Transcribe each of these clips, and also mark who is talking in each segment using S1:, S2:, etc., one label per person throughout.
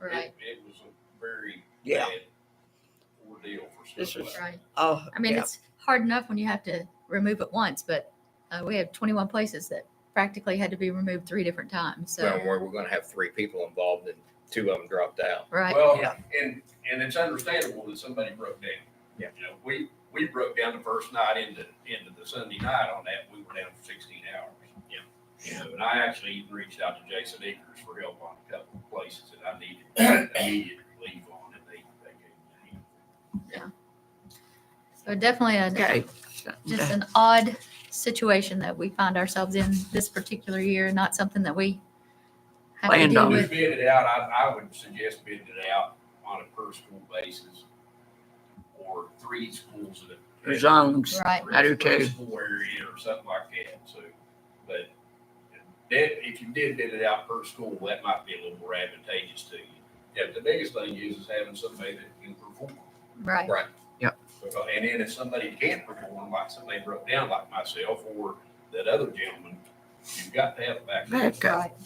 S1: Right.
S2: It, it was a very
S3: Yeah.
S2: bad ordeal for
S3: This
S2: stuff
S3: was-
S2: like
S1: Right.
S3: Oh,
S1: I mean,
S3: yeah.
S1: it's hard enough when you have to remove it once, but uh, we have 21 places that practically had to be removed three different times. So,
S4: Well, where we're gonna have three people involved and two of them dropped out.
S1: right.
S2: Well,
S3: Yeah.
S2: and, and it's understandable that somebody broke down.
S4: Yeah.
S2: You know, we, we broke down the first night into, into the Sunday night on that, we were down for sixteen hours. Yeah. You know, and I actually even reached out to Jason Akers for help on a couple of places that I needed immediate relief on, and they, they gave me.
S1: so definitely a,
S3: okay.
S1: just an odd situation that we find ourselves in this particular year, not something that we have
S3: Planned
S1: to deal
S3: on.
S2: If
S1: with.
S2: you bid it out, I, I would suggest bidding it out on a per school basis or three schools at a.
S3: Your zones.
S1: Right.
S3: I do too.
S2: School area or something like that, so, but that, if you did bid it out per school, that might be a little more advantageous to you. Yeah, the biggest thing is, is having somebody that can perform.
S1: Right.
S2: Because- And then if somebody can't perform, like somebody broke down like myself or that other gentleman, you've got to have a backup.
S3: Back up.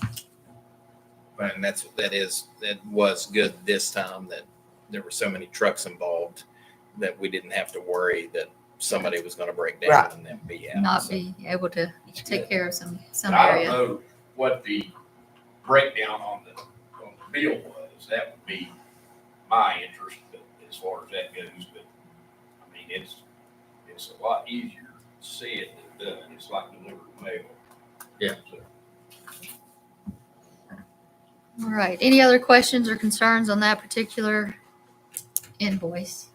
S1: Right.
S4: And that's, that is, that was good this time that there were so many trucks involved that we didn't have to worry that somebody was gonna break down
S3: Right.
S4: and then be out.
S1: Not
S4: So
S1: be able to take care of some some
S2: I don't
S1: area.
S2: know what the breakdown on the, on the bill was. That would be my interest but as far as that goes, but I mean, it's, it's a lot easier said than done. It's like delivering mail.
S4: Yeah.
S2: So,
S1: All right. Any other questions or concerns on that particular invoice?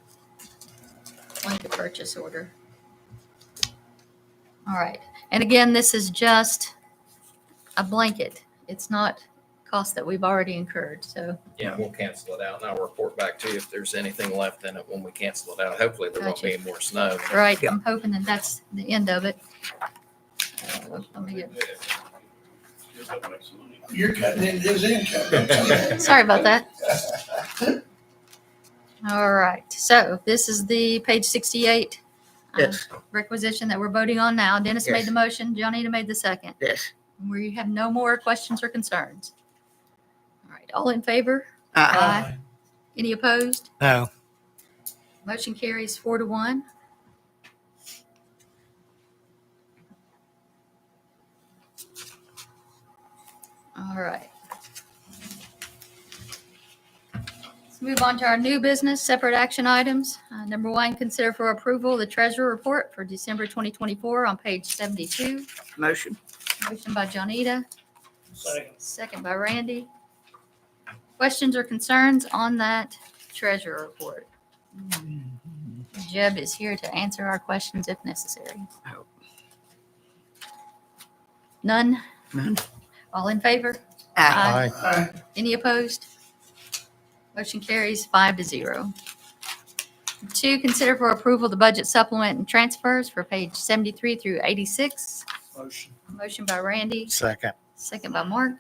S1: Blanket purchase order. All right. And again, this is just a blanket. It's not cost that we've already incurred. So,
S4: Yeah, we'll cancel it out and I'll report back to you if there's anything left in it when we cancel it out. Hopefully there won't be
S1: Gotcha.
S4: any more snow.
S1: right,
S3: Yeah.
S1: I'm hoping that that's the end of it. Uh, Let me get,
S2: Just don't make some money.
S5: You're cutting into his income. don't you?
S1: sorry about that. All right. So this is the page 68. uh,
S3: Yes,
S1: requisition that we're voting on now. Dennis made
S3: Yes.
S1: the motion, Johnita made the second.
S3: yes.
S1: We have no more questions or concerns. All right, all in favor?
S3: Uh,
S1: Aye. Any opposed?
S6: No.
S1: Motion carries four to one. All right. Let's move on to our new business, separate action items. Uh, Number one, consider for approval the treasurer report for December 2024 on page 72.
S3: motion.
S1: Motion by Johnita,
S5: Second.
S1: second by Randy. Questions or concerns on that treasurer report? Jeb is here to answer our questions if necessary.
S3: Oh.
S1: None?
S3: None.
S1: All in favor?
S3: Aye.
S1: Aye.
S5: Aye.
S1: Any opposed? Motion carries five to zero. Two, consider for approval the budget supplement and transfers for page 73 through 86.
S5: Motion.
S1: Motion by Randy,
S6: Second.
S1: second by Mark.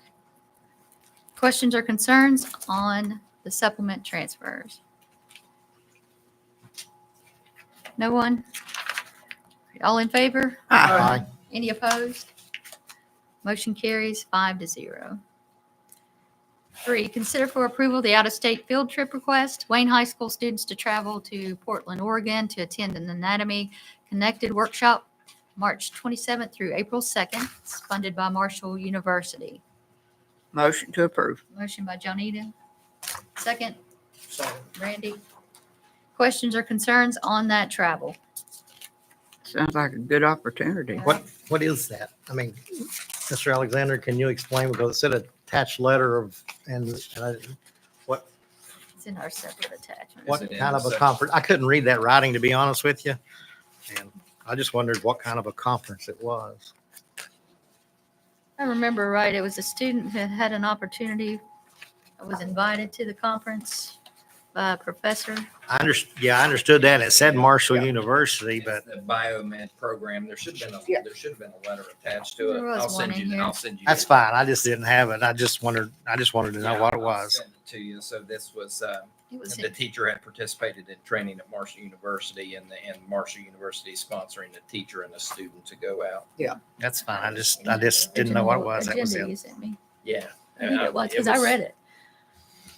S1: Questions or concerns on the supplement transfers? No one? All in favor?
S3: Aye.
S1: Any opposed? Motion carries five to zero. Three, consider for approval the out-of-state field trip request, Wayne High School students to travel to Portland, Oregon to attend an Anatomy Connected Workshop, March 27th through April 2nd, It's funded by Marshall University.
S3: Motion to approve.
S1: Motion by Johnita. Second,
S5: Second.
S1: Randy. Questions or concerns on that travel?
S3: Sounds like a good opportunity.
S6: What, what is that? I mean, Mr. Alexander, can you explain? Because it said attached letter of, and and I- what,
S1: It's in our separate attachment.
S6: what
S4: it in
S6: kind
S4: the
S6: of a
S4: section?
S6: conference? I couldn't read that writing, to be honest with you. And I just wondered what kind of a conference it was.
S1: I remember right, it was a student that had an opportunity, was invited to the conference by a professor.
S6: I under, yeah, I understood that. It said Marshall University, but
S4: It's The biomed program, there should have been,
S3: Yeah.
S4: a there should have been a letter attached to it.
S1: There was
S4: I'll
S1: one
S4: send
S1: in
S4: you,
S1: here.
S4: I'll send you.
S6: that's
S4: the-
S6: fine. I just didn't have it. I just wondered, I just wanted to know
S4: Yeah,
S6: what it
S4: I'll
S6: was.
S4: send it To you, so this was, uh,
S1: It was
S4: the
S1: in-
S4: teacher had participated in training at Marshall University and, the- and Marshall University sponsoring the teacher and the student to go out.
S6: That's fine. I just, I just didn't know what it was. That was
S1: Agenda
S6: it.
S1: you sent me.
S4: Yeah.
S1: I think it was, because I read it.